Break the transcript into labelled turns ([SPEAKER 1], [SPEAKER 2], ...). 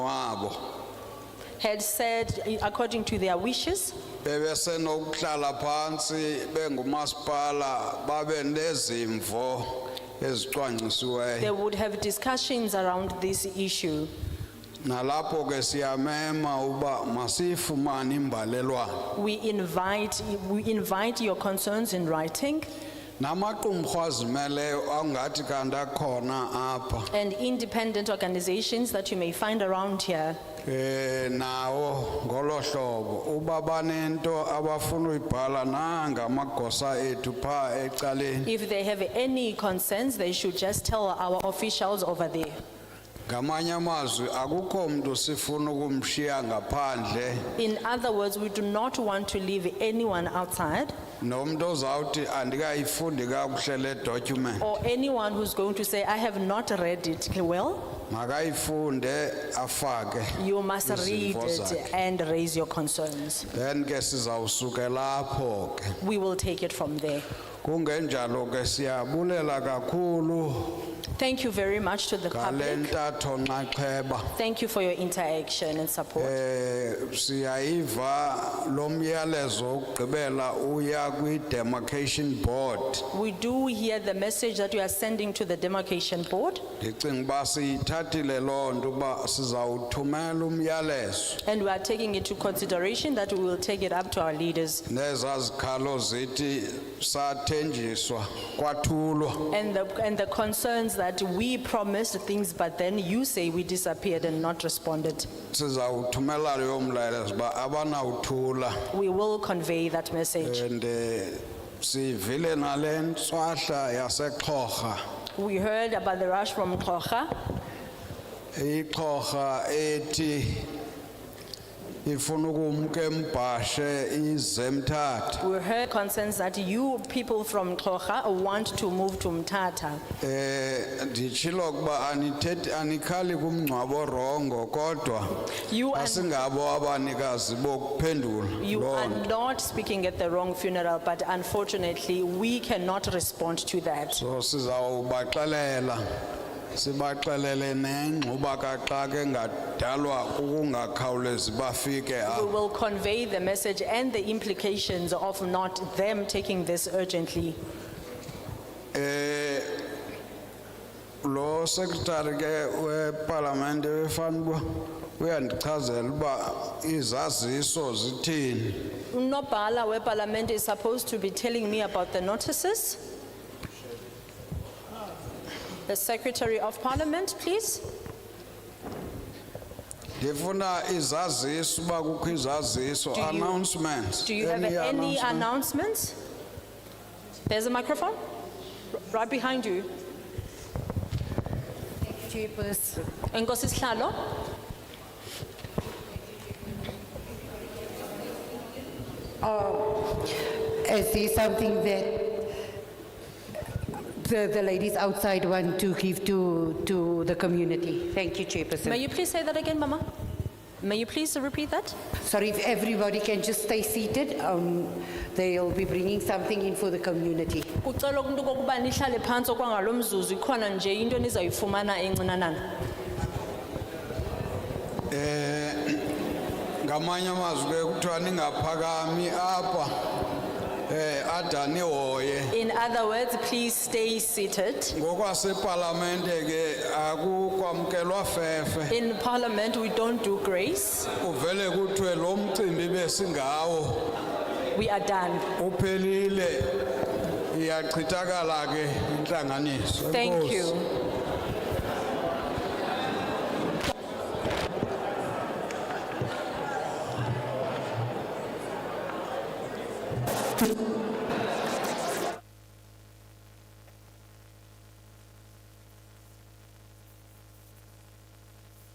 [SPEAKER 1] wabo
[SPEAKER 2] had said, according to their wishes,
[SPEAKER 1] bebesenokuhlala phansi bengumasipala babe nezimvo
[SPEAKER 2] they
[SPEAKER 1] ezicwangcisiweyo
[SPEAKER 2] would have discussions around this issue.
[SPEAKER 1] nalapho ke siyamema uba masiyifumane imbalelwano
[SPEAKER 2] We invite, we invite your concerns in writing
[SPEAKER 1] namaqumrhu azimeleyo angathi kanti akhona apha
[SPEAKER 2] and independent organizations that you may find around here.
[SPEAKER 1] eh nawo ngolohlobo uba banento abafuna uyibhala nanga amagosa ethu pha ecaleni
[SPEAKER 2] If they have any concerns, they should just tell our officials over there.
[SPEAKER 1] ngamanye amazwi akukho mntu sifuna ukumshiya ngaphandle
[SPEAKER 2] In other words, we do not want to leave anyone outside
[SPEAKER 1] nomuntu ozawuthi andikayifundi kakuhle le document
[SPEAKER 2] or anyone who's going to say, I have not read it well.
[SPEAKER 1] makayifunde afake
[SPEAKER 2] You must read
[SPEAKER 1] Izimvo
[SPEAKER 2] it
[SPEAKER 1] zakhe.
[SPEAKER 2] and raise your concerns.
[SPEAKER 1] then ke sizawusuke lapho ke
[SPEAKER 2] We will take it from there.
[SPEAKER 1] kungenjalo ke siyabulela kakhulu
[SPEAKER 2] Thank you very much to the
[SPEAKER 1] ngale
[SPEAKER 2] public.
[SPEAKER 1] ntatho nxaxheba
[SPEAKER 2] Thank you for your interaction and support.
[SPEAKER 1] Eh siyayiva lo myalezo wokugqibela uya kwi-demarcation board
[SPEAKER 2] We do hear the message that you are sending to the demarcation board,
[SPEAKER 1] ndicinga uba siyithathile loo nto uba sizawuthumela umyalezo
[SPEAKER 2] and we are taking into consideration that we will take it up to our leaders.
[SPEAKER 1] nezaa zikhalo zithi sathenjiswa kwathulwa
[SPEAKER 2] And the, and the concerns that we promised things, but then you say we disappeared and not responded.
[SPEAKER 1] sizawuthumela leyo mlayezo uba abanawuthula
[SPEAKER 2] We will convey that message.
[SPEAKER 1] and eh, sivile nale ntswahla yasexhorha
[SPEAKER 2] We heard about the rush from Kocha.
[SPEAKER 1] ixhorha ethi ifuna ukumka embhashe izemthatha
[SPEAKER 2] We heard concerns that you people from Kocha want to move to Mtata.
[SPEAKER 1] um nditshilo ukuba anithethi anikhali kumngcwabo rongo kodwa
[SPEAKER 2] You are
[SPEAKER 1] asingabo abanikazi bokuphendula
[SPEAKER 2] You
[SPEAKER 1] loo
[SPEAKER 2] are
[SPEAKER 1] nto
[SPEAKER 2] not speaking at the wrong funeral, but unfortunately, we cannot respond to that.
[SPEAKER 1] so sizawubaxelela sibaxelele nengxuba kaxaka engadalwa ukungakhawulezi bafike
[SPEAKER 2] We
[SPEAKER 1] apho
[SPEAKER 2] will convey the message and the implications of not them taking this urgently.
[SPEAKER 1] lo secretary ke wepalamente wefanuba uyandichazela uba izaziso zithini
[SPEAKER 2] Unobhala weParliament is supposed to be telling me about the notices. The Secretary of Parliament, please.
[SPEAKER 1] ndifuna izaziso uba kukho izaziso
[SPEAKER 2] you-
[SPEAKER 1] announcements
[SPEAKER 2] Do you have
[SPEAKER 1] Any
[SPEAKER 2] any
[SPEAKER 1] announcement?
[SPEAKER 2] announcements? There's a microphone r- right behind you.
[SPEAKER 3] Jeepers.
[SPEAKER 2] Enkosi Sihlalo.
[SPEAKER 3] I see something that the, the ladies outside want to give to, to the community. Thank you,
[SPEAKER 2] May
[SPEAKER 3] Chairperson.
[SPEAKER 2] you please say that again, Mama? May you please repeat that?
[SPEAKER 3] Sorry, if everybody can just stay seated, um, they'll be bringing something in for the community.
[SPEAKER 2] Kucela umuntu kokuba nihlale phansi okwangalo mzuzu ikhona nje into enizayifumana encinanana.
[SPEAKER 1] ngamanye amazwi ke kuthiwa ningaphakami apha eh adanihoye
[SPEAKER 2] In other words, please stay seated.
[SPEAKER 1] ngokwasepalamente ke akukwamkelwa fefe
[SPEAKER 2] In parliament, we don't do grace.
[SPEAKER 1] uvele kuthiwe lo mcimbi besingawo
[SPEAKER 2] We are done.
[SPEAKER 1] uphelile iyachithakala ke intlanganiso
[SPEAKER 2] Thank you.
[SPEAKER 1] Enkosi.